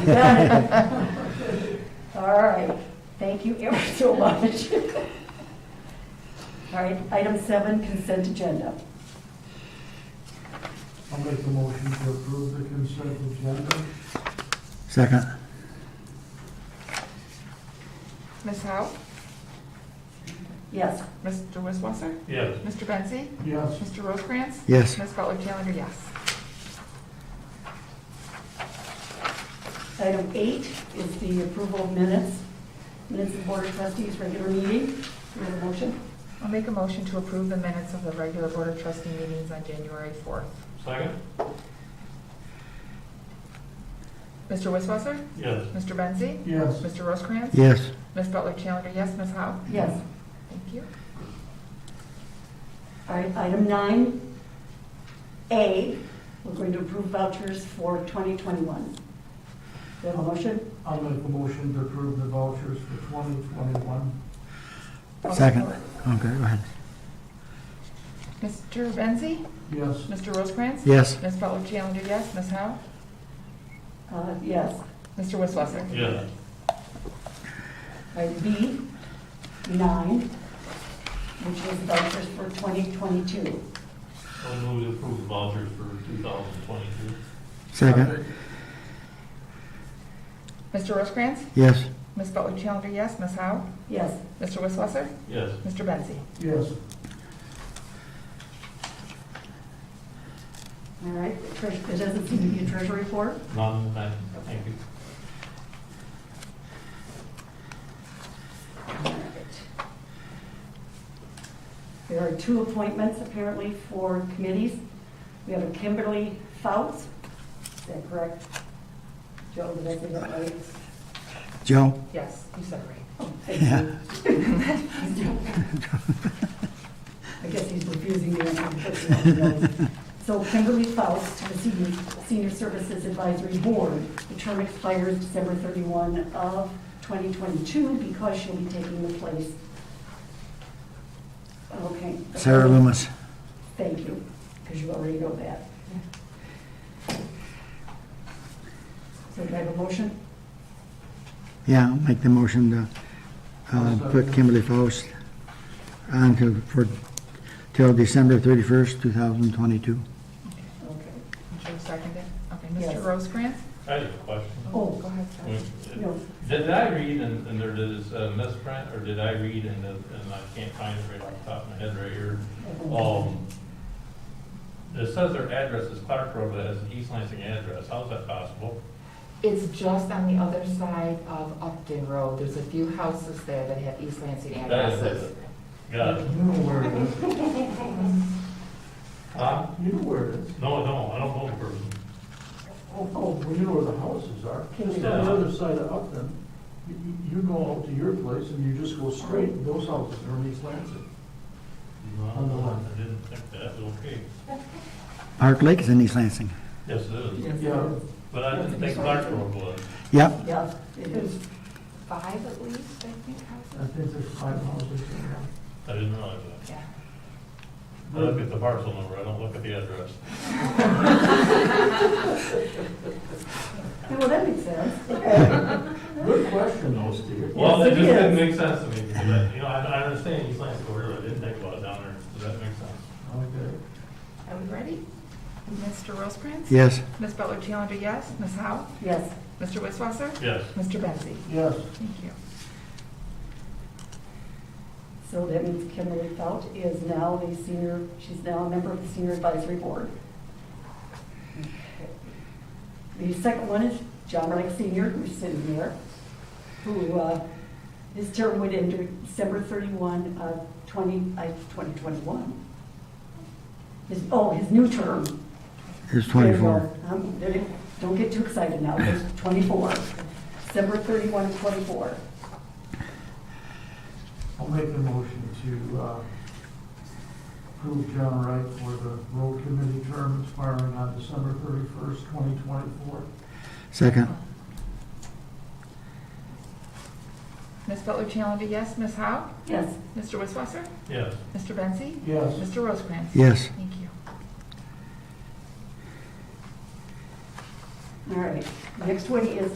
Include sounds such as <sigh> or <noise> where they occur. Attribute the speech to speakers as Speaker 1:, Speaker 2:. Speaker 1: <laughs> All right, thank you ever so much. All right, item seven, consent agenda.
Speaker 2: I'll make the motion to approve the consent agenda.
Speaker 3: Second.
Speaker 4: Ms. Howe?
Speaker 1: Yes,
Speaker 4: Mr. Wisswasser?
Speaker 2: Yes.
Speaker 4: Mr. Bensy?
Speaker 2: Yes,
Speaker 4: Mr. Rosecrans?
Speaker 3: Yes.
Speaker 4: Ms. Butler Challenger, yes.
Speaker 1: item eight is the approval of minutes, minutes of board of trustees regular meeting. Do we have a motion?
Speaker 4: I'll make a motion to approve the minutes of the regular Board of Trustee meetings on January 4th.
Speaker 5: Second?
Speaker 4: Mr. Wisswasser?
Speaker 5: Yes.
Speaker 4: Mr. Bensy?
Speaker 2: yes,
Speaker 4: Mr. Rosecrans?
Speaker 3: Yes.
Speaker 4: Ms. Butler Challenger, yes. Ms. Howe?
Speaker 1: Yes.
Speaker 4: Thank you.
Speaker 1: All right, item nine, A, we're going to approve vouchers for 2021. Do we have a motion?
Speaker 2: I'll make the motion to approve the vouchers for 2021.
Speaker 3: Second. Okay, go ahead.
Speaker 4: Mr. Bensy?
Speaker 2: Yes,
Speaker 4: Mr. Rosecrans?
Speaker 3: Yes.
Speaker 4: Ms. Butler Challenger, yes. Ms. Howe?
Speaker 1: Uh, Yes.
Speaker 4: Mr. Wisswasser?
Speaker 5: Yes.
Speaker 1: All right, B, nine, which is vouchers for 2022.
Speaker 5: I move to approve the vouchers for 2022.
Speaker 3: Second.
Speaker 4: Mr. Rosecrans?
Speaker 3: Yes.
Speaker 4: Ms. Butler Challenger, yes. Ms. Howe?
Speaker 1: Yes.
Speaker 4: Mr. Wisswasser?
Speaker 5: Yes.
Speaker 4: Mr. Bensy?
Speaker 2: yes,
Speaker 1: All right, Treas- it doesn't seem to be a treasury report.
Speaker 5: None, I- thank you.
Speaker 1: All right. There are two appointments apparently for committees. We have a Kimberly Fouts, is that correct? Joe, did I say that right?
Speaker 3: Joe?
Speaker 4: Yes, you said it right.
Speaker 1: <laughs> Oh, thank you. I guess he's refusing the answer. So Kimberly Faust to the Senior, Senior Services Advisory Board. The term expires December 31 of 2022 because she'll be taking the place. Okay.
Speaker 3: Sarah Loomis.
Speaker 1: Thank you, because you already know that. So do I have a motion?
Speaker 3: Yeah, I'll make the motion to uh, put Kimberly Faust on to, for, till December 31st, 2022.
Speaker 1: Okay.
Speaker 4: Joe seconded. Okay,
Speaker 1: Yes.
Speaker 4: Mr. Rosecrans?
Speaker 5: I have a question.
Speaker 1: Oh.
Speaker 4: Go ahead, Scott.
Speaker 1: No.
Speaker 5: Did I read and and there is a misprint, or did I read and it- and I can't find it right off the top of my head right here? Um, It says their address is Clark Road, but it has an East Lansing address. How is that possible?
Speaker 4: It's just on the other side of Upton Road. There's a few houses there that have East Lansing
Speaker 5: That is-
Speaker 4: addresses.
Speaker 5: Got it.
Speaker 2: you know where it is,
Speaker 5: Huh?
Speaker 2: you know where it is.
Speaker 5: No, no, I don't know the person.
Speaker 2: Oh, oh, well, you know where the houses are,
Speaker 1: Can
Speaker 2: just
Speaker 1: we-
Speaker 2: on the other side of Upton. You- You you go out to your place and you just go straight, and those houses are in East Lansing.
Speaker 5: No, I didn't think that, okay.
Speaker 3: Park Lake is in East Lansing.
Speaker 5: Yes, it is.
Speaker 2: Yeah,
Speaker 5: But I didn't think Clark Road was.
Speaker 3: Yep,
Speaker 1: Yeah, it is.
Speaker 4: Five at least, I think,
Speaker 2: I
Speaker 4: houses?
Speaker 2: think there's five houses in there.
Speaker 5: I didn't realize that.
Speaker 4: Yeah.
Speaker 5: I look at the parcel number, I don't look at the address.
Speaker 1: Yeah, Well, that makes sense.
Speaker 2: Good question, though, Steve.
Speaker 1: Yes,
Speaker 5: Well, that
Speaker 1: it
Speaker 5: just didn't
Speaker 1: is.
Speaker 5: make sense to me, because I, you know, I, I understand East Lansing corridor, I didn't think about it down there, does that make sense?
Speaker 2: Okay.
Speaker 4: Are we ready? Mr. Rosecrans?
Speaker 3: yes.
Speaker 4: Ms. Butler Challenger, yes. Ms. Howe?
Speaker 1: Yes.
Speaker 4: Mr. Wisswasser?
Speaker 5: Yes,
Speaker 4: Mr. Bensy?
Speaker 2: Yes,
Speaker 4: Thank you.
Speaker 1: So that means Kimberly Felt is now the senior, she's now a member of the senior advisory board. The second one is John Reich Senior, who's sitting there, who, uh, his term would end December 31 of 20, uh, 2021. His, oh, his new term.
Speaker 3: It's 24.
Speaker 1: Um, there- Don't get too excited now, it's 24, December 31 of 24.
Speaker 2: I'll make the motion to uh, approve John Wright for the road committee term expiring on December thirty-first, twenty twenty-four.
Speaker 3: Second.
Speaker 4: Ms. Butler Challenger, yes. Ms. Howe?
Speaker 1: Yes.
Speaker 4: Mr. Wisswasser?
Speaker 5: yes,
Speaker 4: Mr. Bensy?
Speaker 2: Yes,
Speaker 4: Mr. Rosecrans?
Speaker 3: Yes.
Speaker 4: Thank you.
Speaker 1: All right, next one is